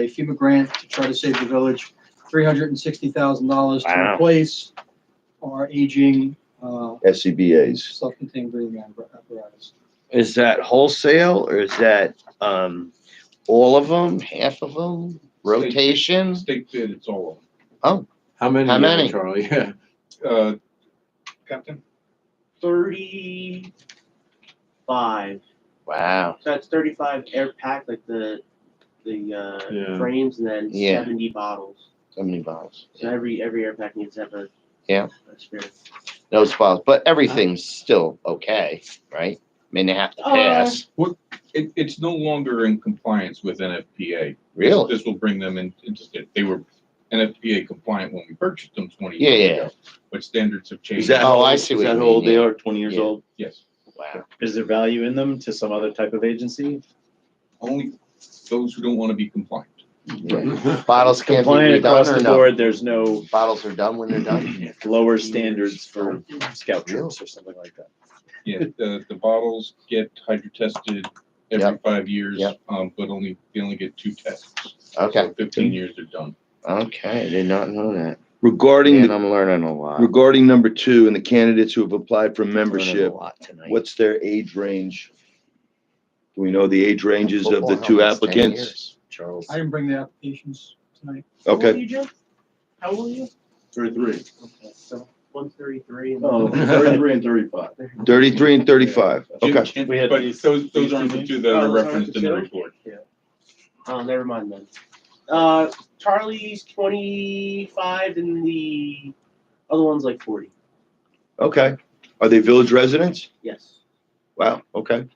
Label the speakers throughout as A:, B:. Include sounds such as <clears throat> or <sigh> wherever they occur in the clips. A: a FEMA grant to try to save the village, three hundred and sixty thousand dollars to
B: Wow.
A: replace our aging, uh,
C: E
D: SCBA's.
A: self-contained breathing appar- apparatus.
B: Is that wholesale or is that, um, all of them, half of them, rotation?
E: State bid, it's all
F: How many? you
B: How
F: have,
B: many?
F: Charlie, <laughs> yeah.
E: of them. Uh, Captain,
G: thirty-five.
B: Wow,
G: So it's thirty-five air pack, like the the uh,
F: Yeah.
G: frames, and then
B: Yeah.
G: seventy bottles.
B: so many bottles.
G: So every every air pack needs to have a
B: Yeah.
G: a spirit.
B: Those bottles, but everything's still okay, right? I mean, they have to
G: Uh,
B: pass.
E: it, it's no longer in compliance with NFPA.
B: Really?
E: This will bring them in, into, state- they were NFPA compliant when we purchased them twenty
B: Yeah,
E: years
B: yeah.
E: ago. But standards have
C: Is
E: changed.
C: that
B: Oh,
C: how-
B: I see what
C: Is that
B: you
C: how old
B: mean,
C: they
B: yeah.
C: are? Twenty years
B: Yeah.
C: old?
E: Yes,
B: Wow.
C: Is there value in them to some other type of agency?
E: only those who don't want to be compliant.
B: Yeah. Bottles can't be
C: Compliant across
B: redone or
C: the
B: no?
C: board, there's no
B: Bottles are done when they're done?
C: lower standards for scout troops or something like that.
E: Yeah, the, the bottles get hydro tested every
B: Yep.
E: five years,
B: Yep.
E: um, but only, they only get two tests.
B: Okay,
E: So Fifteen years they're done.
B: okay, I did not know that.
D: Regarding,
B: And
D: the-
B: I'm learning a lot.
D: regarding number two and the candidates who have applied for
B: Learning
D: membership,
B: a lot tonight.
D: what's their age range? Do we know the age ranges of the
B: Football
D: two
B: helmets, 10
D: applicants?
B: years, Charles.
A: I didn't bring the applications tonight.
D: Okay.
G: How old are you?
C: Thirty-three.
G: Okay, so one thirty-three.
C: Oh, thirty-three and thirty-five.
D: 33 and 35. Okay.
C: We had
E: But
C: these-
E: those, those
C: these
E: aren't the
C: things.
E: two that
G: Oh,
E: are
G: those aren't
E: referenced
G: the
E: in the
G: two?
E: report.
G: Oh, never mind then. Uh, Charlie's twenty-five, and the other one's like forty.
D: Okay. Are they village residents?
G: Yes.
D: Wow. Okay.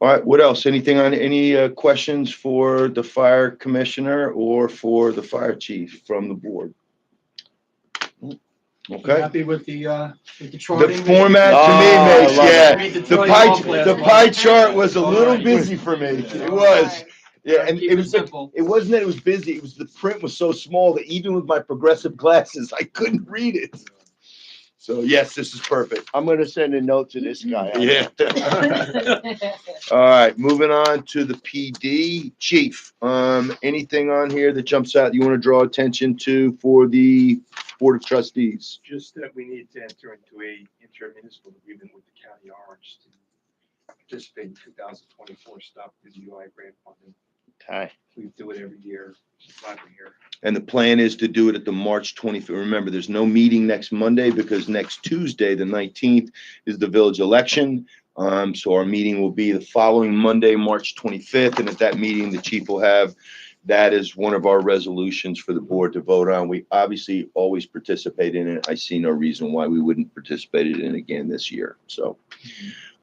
D: All right. What else? Anything on any uh, questions for the fire commissioner or for the fire chief from the board?
A: You
D: Okay.
A: Happy with the, uh, with the
D: The
A: charting?
D: format
B: Oh, I
D: to me makes,
B: love
D: yeah.
A: Read
D: The
A: Charlie
D: pie,
A: Hoff last
D: the
A: month.
D: pie chart was a little
A: Alright.
D: busy for me. It was. Yeah. And
A: Keep
D: it was, like-
A: simple.
D: it wasn't that it was busy. It was the print was so small that even with my progressive glasses, I couldn't read it. So yes, this is perfect. Mm-hmm.
B: I'm gonna send a note to this guy.
D: Yeah.
G: <laughs>
D: All right, moving on to the PD chief. Um, anything on here that jumps out you want to draw attention to for the board of trustees?
H: just that we need to enter into a intermunicipal agreement with the county orange to participate in two thousand twenty-four stop the UI grant funding.
B: Okay.
H: We do it every year, not every year.
D: And the plan is to do it at the March 25th. Remember, there's no meeting next Monday because next Tuesday, the 19th, is the village election. Um, so our meeting will be the following Monday, March 25th. And at that meeting, the chief will have, that is one of our resolutions for the board to vote on. We obviously always participate in it. I see no reason why we wouldn't participate in it again this year. So.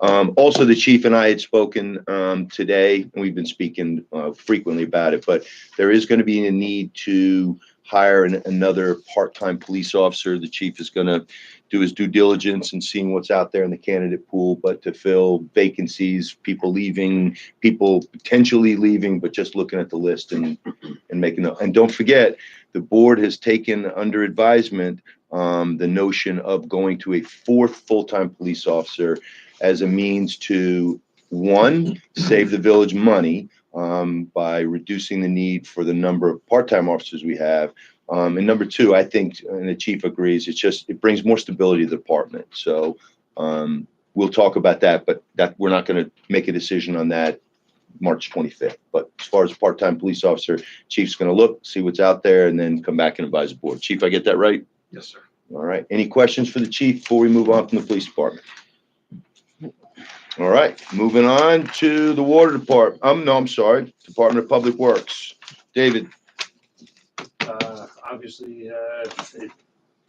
D: Um, also, the chief and I had spoken, um, today, and we've been speaking, uh, frequently about it, but there is going to be a need to hire an, another part-time police officer. The chief is going to do his due diligence and seeing what's out there in the candidate pool, but to fill vacancies, people leaving, people potentially leaving, but just looking at the list and and making the. And don't forget, the board has taken under advisement um, the notion of going to a fourth full-time police officer as a means to one save the village money um, by reducing the need for the number of part-time officers we have. Um, and number two, I think, and the chief agrees, it's just, it brings more stability to the department. So, um, we'll talk about that, but that, we're not gonna make a decision on that March twenty-fifth. But as far as part-time police officer, chief's gonna look, see what's out there, and then come back and advise the board. Chief, I get that right?
H: Yes, sir.
D: All right, any questions for the chief before we move on from the police department? All right, moving on to the water department, um, no, I'm sorry, Department of Public Works. David,
I: Uh, obviously, uh, it's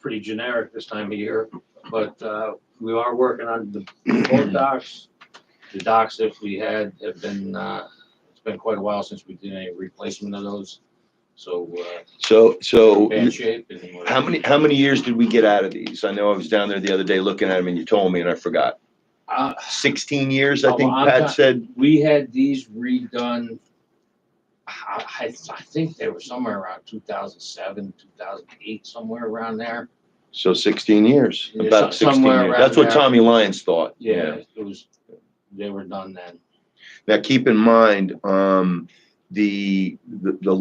I: pretty generic this time of year, but, uh, we are working on the
D: <clears throat>
I: boat docks. The docks, if we had, have been, uh, it's been quite a while since we did any replacement of those. So, uh,
D: so, so
I: bad shape and. we're-
D: how many, how many years did we get out of these? I know I was down there the other day looking at them and you told me and I forgot.
I: Uh,
D: Sixteen years, I
I: Oh,
D: think
I: I'm
D: Pat
I: not-
D: said,
I: we had these redone, I, I, I think they were somewhere around two thousand seven, two thousand eight, somewhere around there.
D: so sixteen years,
I: Yeah,
D: about
I: so-
D: sixteen
I: somewhere
D: years.
I: around
D: That's what
I: there.
D: Tommy Lyons thought.
I: Yeah, it was, they were done then.
D: Now, keep in mind, um, the, the, the